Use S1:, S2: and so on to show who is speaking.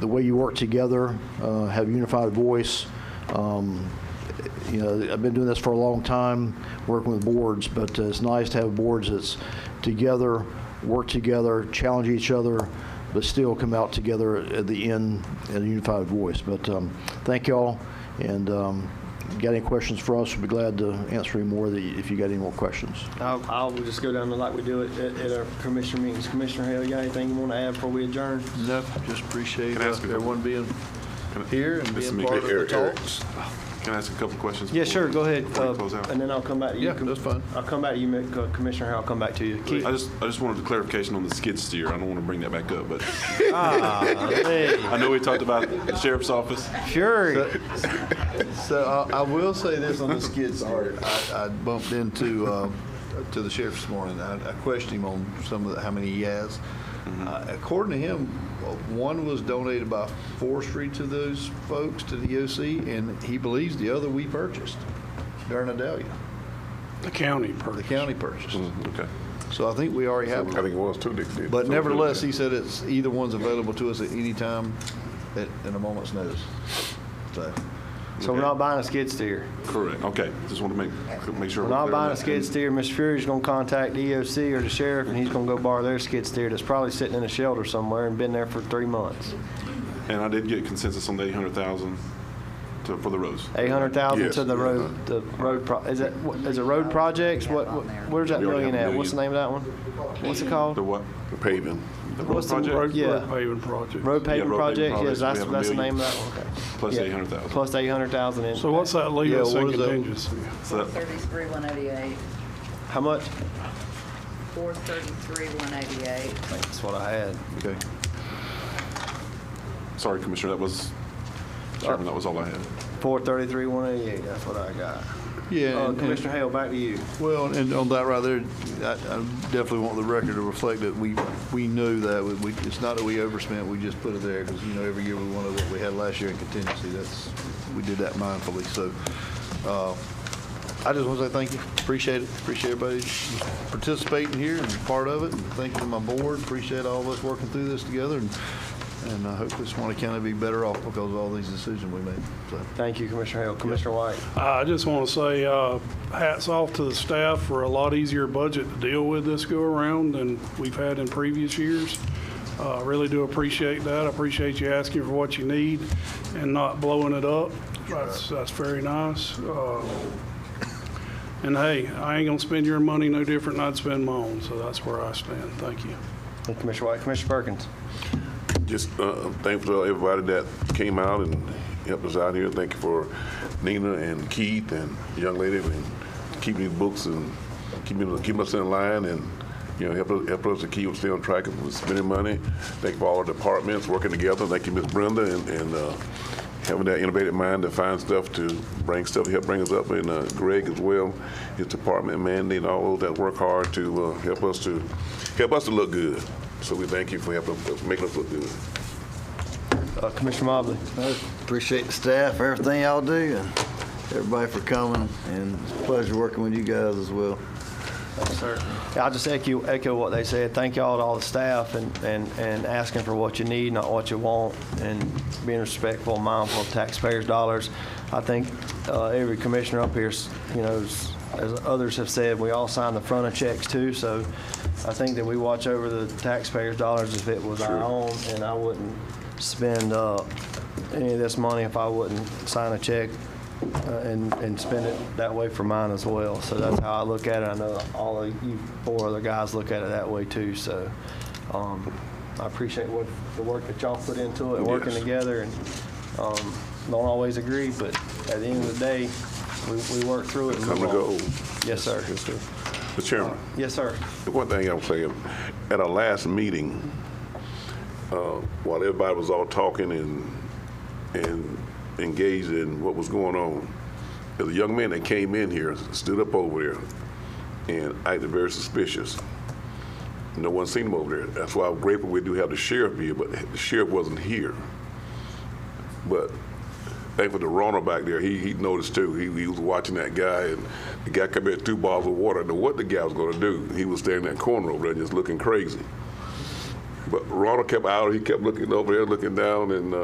S1: the way you work together, uh, have a unified voice. Um, You know, I've been doing this for a long time, working with boards, but uh, it's nice to have boards that's together, work together, challenge each other, but still come out together at the end in a unified voice. But um, thank y'all, and um, got any questions for us, we'd be glad to answer any more that you- if you got any more questions.
S2: I'll, I'll just go down to like we do it at, at our commissioner meetings. Commissioner Hale, you got anything you want to add before we adjourn?
S3: No, just appreciate
S4: Can I
S3: uh,
S4: ask a-
S3: everyone being here and
S4: Mr.
S3: being
S4: Meeker,
S3: part of the
S4: Eric, Eric.
S3: talks.
S4: Can I ask a couple questions?
S2: Yeah,
S4: before
S2: sure,
S4: we-
S2: go ahead.
S4: before we
S2: uh,
S4: close out?
S2: And then I'll come back to you.
S3: Yeah, that's fine.
S2: I'll come back to you, Mi- uh, Commissioner Hale, I'll come back to you. Keith,
S4: I just, I just wanted clarification on the skid steer. I don't want to bring that back up, but
S2: hey,
S4: I know we talked about the sheriff's office.
S2: Fury.
S3: So I- I will say this on the skid steer. I I bumped into, uh, to the sheriff this morning. I I questioned him on some of the, how many he has.
S4: Mm-hmm.
S3: Uh, According to him, one was donated by forestry to those folks, to the OC, and he believes the other we purchased during Adelia.
S5: The county
S3: The
S5: purchase.
S3: county purchased.
S4: Okay.
S3: So I think we already have
S6: I
S3: one.
S6: think it was two dicks.
S3: But nevertheless, he said it's, either one's available to us at any time, at, in a moment's notice. So,
S2: So we're not buying a skid steer.
S4: Correct. Okay. Just want to make, make sure.
S2: We're
S4: we're
S2: not
S4: clear on
S2: buying a
S4: that.
S2: skid steer. Mr. Fury's gonna contact EOC or the sheriff, and he's gonna go borrow their skid steer that's probably sitting in a shelter somewhere and been there for three months.
S4: And I did get consensus on the 800,000 to, for the roads.
S2: Eight hundred thousand
S6: Yes,
S2: to the
S6: yeah.
S2: road, the road, pro- is it, what- is it road projects? What, what- where's that
S4: We already have
S2: million
S4: a
S2: at? What's the name of that one? What's it called?
S4: The what?
S6: Paving.
S4: The road
S2: What's the
S4: project?
S2: road-
S5: Road-
S2: Yeah.
S5: Road paving project.
S2: Road
S4: Yeah,
S2: paving
S4: road
S2: project,
S4: paving
S2: yes,
S4: projects. We
S2: that's,
S4: have a
S2: that's the name
S4: million.
S2: of that one, okay.
S4: Plus
S2: Yeah.
S4: 800,000.
S2: Plus eight hundred thousand in.
S5: So what's that leave
S3: Yeah,
S5: us in
S3: what is that?
S5: contingency?
S4: So that-
S7: 433, 188.
S2: How much?
S7: 433, 188.
S2: That's what I had.
S3: okay.
S4: Sorry, Commissioner, that was, Chairman, that was all I had.
S2: Four thirty-three, one eighty-eight, that's what I got.
S3: Yeah,
S2: Uh,
S3: and- and-
S2: Commissioner Hale, back to you.
S3: well, and on that right there, I, I definitely want the record to reflect that we, we knew that, we, we- it's not that we overspent, we just put it there, because, you know, every year we wanted what we had last year in contingency, that's, we did that mindfully, so, uh, I just want to say thank you, appreciate it, appreciate everybody participating here and part of it, and thank you to my board, appreciate all of us working through this together, and, and I hope this one County be better off because of all these decisions we made, so.
S2: Thank you, Commissioner Hale. Commissioner White?
S5: Uh, I just want to say uh, hats off to the staff for a lot easier budget to deal with this go-around than we've had in previous years. Uh, I Really do appreciate that. I appreciate you asking for what you need and not blowing it up. That's, that's very nice. Uh, And hey, I ain't going to spend your money no different than I'd spend mine, so that's where I stand. Thank you.
S2: And Commissioner White, Commissioner Perkins?
S6: Just uh, thankful to everybody that came out and helped us out here. Thank you for Nina and Keith and the young lady and keeping these books and keeping keeping us in line and you know help us help us to keep stay on track of spending money. Thank you for all our departments working together. Thank you, Miss Brenda, and, and uh, having that innovative mind to find stuff to bring stuff help bring us up and uh, Greg as well, his department, Mandy, and all those that work hard to uh, help us to help us to look good. So we thank you for helping making us look good.
S2: Uh, Commissioner Mobley?
S8: Appreciate the staff, everything y'all do, and everybody for coming, and it's a pleasure working with you guys as well.
S2: Yeah, I just echo, echo what they said. Thank y'all to all the staff and, and, and asking for what you need, not what you want, and being respectful, mindful of taxpayers' dollars. I think uh, every commissioner up here, s- you know, s- as others have said, we all sign the front of checks too, so I think that we watch over the taxpayers' dollars if it was our own, and I wouldn't spend uh, any of this money if I wouldn't sign a check uh, and, and spend it that way for mine as well. So that's how I look at it. I know all of you four other guys look at it that way too, so, um, I appreciate what, the work that y'all put into it, working
S4: Yes.
S2: together, and, um, don't always agree, but at the end of the day, we, we work through it. and
S6: Come
S2: move
S6: and
S2: on.
S6: go.
S2: Yes, sir.
S6: The chairman,
S2: Yes, sir.
S6: the one thing I'm saying, at our last meeting, uh, while everybody was all talking and, and engaged in what was going on, there's a young man that came in here, stood up over there, and acted very suspicious. No one seen him over there. That's why I'm grateful we do have the sheriff here, but the sheriff wasn't here. But thankful to Ronald back there, he, he noticed too. He, he was watching that guy, and the guy come in with two bottles of water. I know what the guy was going to do. He was standing in that corner over there just looking crazy. But Ronald kept out, he kept looking over there, looking down, and, uh,